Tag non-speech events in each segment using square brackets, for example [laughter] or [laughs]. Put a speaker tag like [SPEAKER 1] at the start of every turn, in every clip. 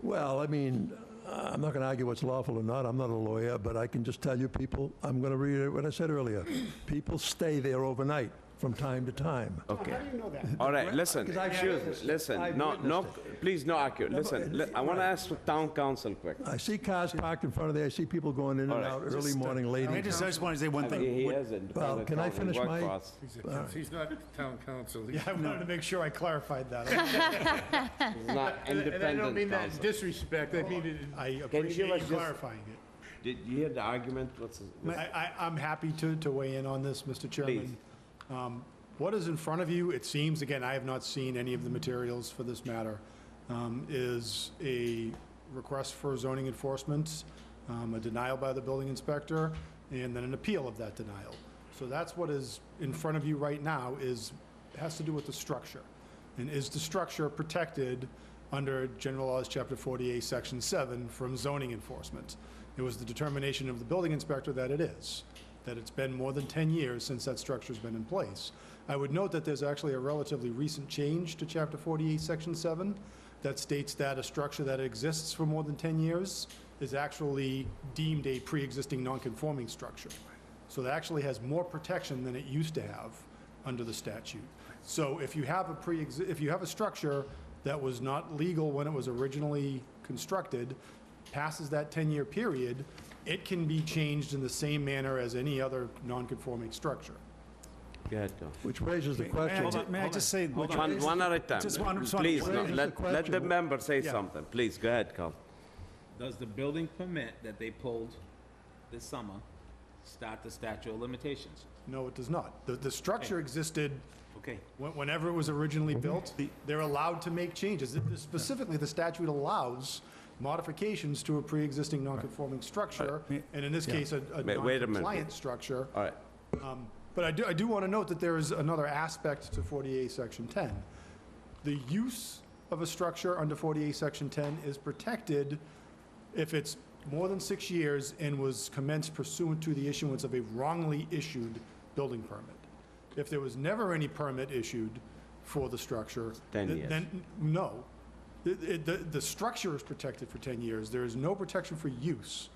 [SPEAKER 1] Well, I mean, I'm not going to argue what's lawful or not. I'm not a lawyer, but I can just tell you people, I'm going to reiterate what I said earlier. People stay there overnight from time to time.
[SPEAKER 2] Okay.
[SPEAKER 3] How do you know that?
[SPEAKER 2] All right, listen,
[SPEAKER 1] 'Cause I've
[SPEAKER 2] excuse,
[SPEAKER 1] witnessed it.
[SPEAKER 2] listen,
[SPEAKER 1] I've
[SPEAKER 2] no, no,
[SPEAKER 1] witnessed
[SPEAKER 2] please, no, accurate.
[SPEAKER 1] No, but
[SPEAKER 2] Listen,
[SPEAKER 1] it-
[SPEAKER 2] li- I want to ask the town council quick.
[SPEAKER 1] I see cars parked in front of there, I see people going in and
[SPEAKER 2] right.
[SPEAKER 1] out early morning, late
[SPEAKER 4] I
[SPEAKER 1] evening.
[SPEAKER 4] just, I just want to say one
[SPEAKER 2] He
[SPEAKER 4] thing.
[SPEAKER 2] he
[SPEAKER 4] What-
[SPEAKER 2] hasn't.
[SPEAKER 1] Well,
[SPEAKER 2] the
[SPEAKER 1] can I
[SPEAKER 2] town, he
[SPEAKER 1] finish
[SPEAKER 2] worked
[SPEAKER 1] my-
[SPEAKER 2] for us.
[SPEAKER 5] He's not town council. He's
[SPEAKER 4] Yeah, I wanted to make sure I
[SPEAKER 2] [laughs]
[SPEAKER 4] clarified that.
[SPEAKER 2] He's not
[SPEAKER 5] And I don't mean
[SPEAKER 2] independent
[SPEAKER 5] that in
[SPEAKER 2] council.
[SPEAKER 5] disrespect, I mean it in
[SPEAKER 4] I
[SPEAKER 2] Can you give
[SPEAKER 4] appreciate
[SPEAKER 2] us
[SPEAKER 4] you
[SPEAKER 2] just-
[SPEAKER 4] clarifying it.
[SPEAKER 2] Did you hear the argument? What's his?
[SPEAKER 4] I, I, I'm happy to, to weigh in on this, Mr. Chairman. Um, What is in front of you, it seems, again, I have not seen any of the materials for this matter, um, is a request for zoning enforcement, um, a denial by the building inspector, and then an appeal of that denial. So that's what is in front of you right now is, has to do with the structure. And is the structure protected under General Laws, Chapter 48, Section 7, from zoning enforcement? It was the determination of the building inspector that it is, that it's been more than 10 years since that structure's been in place. I would note that there's actually a relatively recent change to Chapter 48, Section 7, that states that a structure that exists for more than 10 years is actually deemed a pre-existing non-conforming structure. So that actually has more protection than it used to have under the statute. So if you have a pre, if you have a structure that was not legal when it was originally constructed, passes that 10-year period, it can be changed in the same manner as any other non-conforming structure.
[SPEAKER 2] Go ahead, Tom.
[SPEAKER 1] Which raises the
[SPEAKER 6] May I
[SPEAKER 1] question,
[SPEAKER 6] ju- May I just say, which-
[SPEAKER 2] One, one at a
[SPEAKER 6] Just one-
[SPEAKER 2] time.
[SPEAKER 6] just one-
[SPEAKER 2] Please,
[SPEAKER 6] one-
[SPEAKER 2] no,
[SPEAKER 1] Raise the
[SPEAKER 2] let, let the
[SPEAKER 1] question.
[SPEAKER 2] member say
[SPEAKER 6] Yeah.
[SPEAKER 2] something. Please, go ahead, Carl.
[SPEAKER 7] Does the building permit that they pulled this summer start the statute of limitations?
[SPEAKER 4] No, it does not. The, the structure existed
[SPEAKER 7] Okay,
[SPEAKER 4] When- Whenever it was originally built, they're allowed to make changes. It- Specifically, the statute allows modifications to a pre-existing non-conforming structure, and in this case, a a
[SPEAKER 2] Wait- wait a minute.
[SPEAKER 4] non-compliant structure.
[SPEAKER 2] All right,
[SPEAKER 4] Um, But I do, I do want to note that there is another aspect to 48, Section 10. The use of a structure under 48, Section 10 is protected if it's more than six years and was commenced pursuant to the issuance of a wrongly issued building permit. If there was never any permit issued for the structure.
[SPEAKER 2] 10
[SPEAKER 4] th-
[SPEAKER 2] years.
[SPEAKER 4] Then, no. It- it- The, the structure is protected for 10 years. There is no protection for use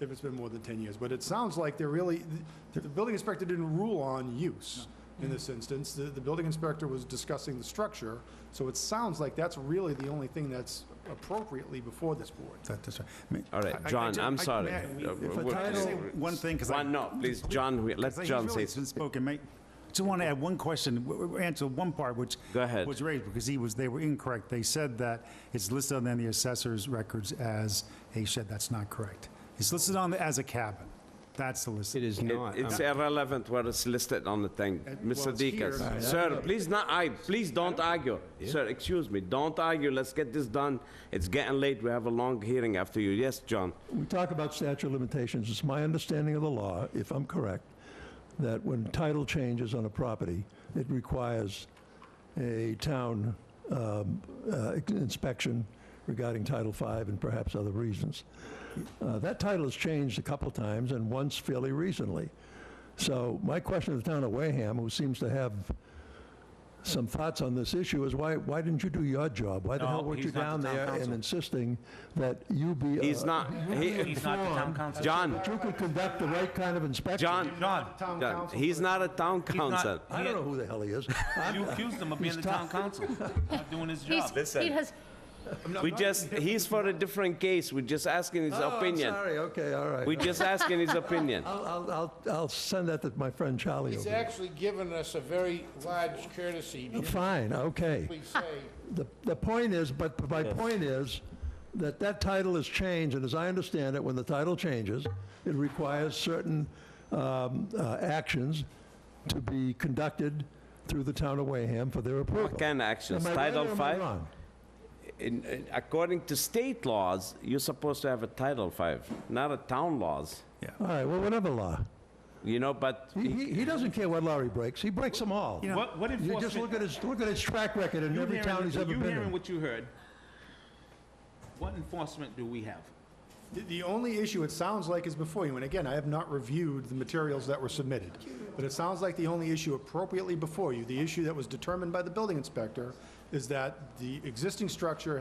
[SPEAKER 4] if it's been more than 10 years. But it sounds like they're really, the the building inspector didn't rule on use in this instance. The, the building inspector was discussing the structure, so it sounds like that's really the only thing that's appropriately before this board.
[SPEAKER 6] that- that's right. I mean,
[SPEAKER 2] all
[SPEAKER 6] I- I-
[SPEAKER 2] right,
[SPEAKER 6] I
[SPEAKER 2] John,
[SPEAKER 6] ju-
[SPEAKER 2] I'm
[SPEAKER 6] I-
[SPEAKER 2] sorry.
[SPEAKER 6] may I-
[SPEAKER 2] Uh,
[SPEAKER 6] if I
[SPEAKER 2] we're-
[SPEAKER 6] can say One thing, because I.
[SPEAKER 2] One, no, please, John, we- let
[SPEAKER 6] He's
[SPEAKER 2] John
[SPEAKER 6] really
[SPEAKER 2] say.
[SPEAKER 6] been spoken, mate. Just want to add one question, w- w- answer one part which.
[SPEAKER 2] Go ahead.
[SPEAKER 6] Was raised because he was, they were incorrect. They said that it's listed on the assessor's records as a shed. That's not correct. It's listed on, the- as a cabin. That's the list.
[SPEAKER 8] It is
[SPEAKER 2] It-
[SPEAKER 8] not.
[SPEAKER 2] It's irrelevant what is listed on the thing. Mr.
[SPEAKER 4] it's here,
[SPEAKER 2] Deacon,
[SPEAKER 4] it's not.
[SPEAKER 2] sir, please not, I, please don't argue. Sir, excuse me, don't argue, let's get this done. It's getting late, we have a long hearing after you. Yes, John?
[SPEAKER 1] we talk about statute of limitations, it's my understanding of the law, if I'm correct, that when title changes on a property, it requires a town um, uh, inspection regarding Title V and perhaps other reasons. Uh, That title has changed a couple times, and once fairly recently. So my question to the town of Wareham, who seems to have some thoughts on this issue, is why, why didn't you do your job? Why the hell
[SPEAKER 7] No,
[SPEAKER 1] weren't you
[SPEAKER 7] he's
[SPEAKER 1] down
[SPEAKER 7] not the town
[SPEAKER 1] there and
[SPEAKER 7] council.
[SPEAKER 1] insisting that you be a-
[SPEAKER 2] He's not, he,
[SPEAKER 7] he's not the town council.
[SPEAKER 2] John,
[SPEAKER 1] that you could conduct the right kind of inspection.
[SPEAKER 2] John,
[SPEAKER 7] John,
[SPEAKER 2] John, he's not a town council.
[SPEAKER 1] I don't know who the hell
[SPEAKER 2] [laughs]
[SPEAKER 1] he is.
[SPEAKER 7] you accused him of being the town council, not doing his
[SPEAKER 9] He's,
[SPEAKER 7] job.
[SPEAKER 9] he has,
[SPEAKER 2] We just, he's for a different case, we're just asking his
[SPEAKER 1] Oh, I'm
[SPEAKER 2] opinion.
[SPEAKER 1] sorry, Uh, okay, all right.
[SPEAKER 2] We're just asking
[SPEAKER 1] [laughs]
[SPEAKER 2] his opinion.
[SPEAKER 1] I'll, I'll, I'll, I'll send that to my friend Charlie over
[SPEAKER 5] He's
[SPEAKER 1] there.
[SPEAKER 5] actually given us a very large courtesy, to
[SPEAKER 1] Fine, okay.
[SPEAKER 5] simply say,
[SPEAKER 1] The, the point is, but my point is, that that title is changed, and as I understand it, when the title changes, it requires certain um, uh, actions to be conducted through the town of Wareham for their approval.
[SPEAKER 2] What kind of actions?
[SPEAKER 1] Am I right
[SPEAKER 2] Title
[SPEAKER 1] or am I
[SPEAKER 2] five?
[SPEAKER 1] wrong?
[SPEAKER 2] in, in- according to state laws, you're supposed to have a Title Five, not a town laws,
[SPEAKER 1] All right, well, whatever law.
[SPEAKER 2] you know, but
[SPEAKER 1] He, he, he doesn't care what law he breaks. He breaks them all.
[SPEAKER 7] What, what
[SPEAKER 1] You just look at
[SPEAKER 7] enforcement,
[SPEAKER 1] his, look at his track record in
[SPEAKER 7] you
[SPEAKER 1] every town
[SPEAKER 7] hearing,
[SPEAKER 1] he's ever
[SPEAKER 7] you
[SPEAKER 1] been
[SPEAKER 7] hearing
[SPEAKER 1] in.
[SPEAKER 7] what you heard, what enforcement do we have?
[SPEAKER 4] The- The only issue it sounds like is before you, and again, I have not reviewed the materials that were submitted, but it sounds like the only issue appropriately before you, the issue that was determined by the building inspector, is that the existing structure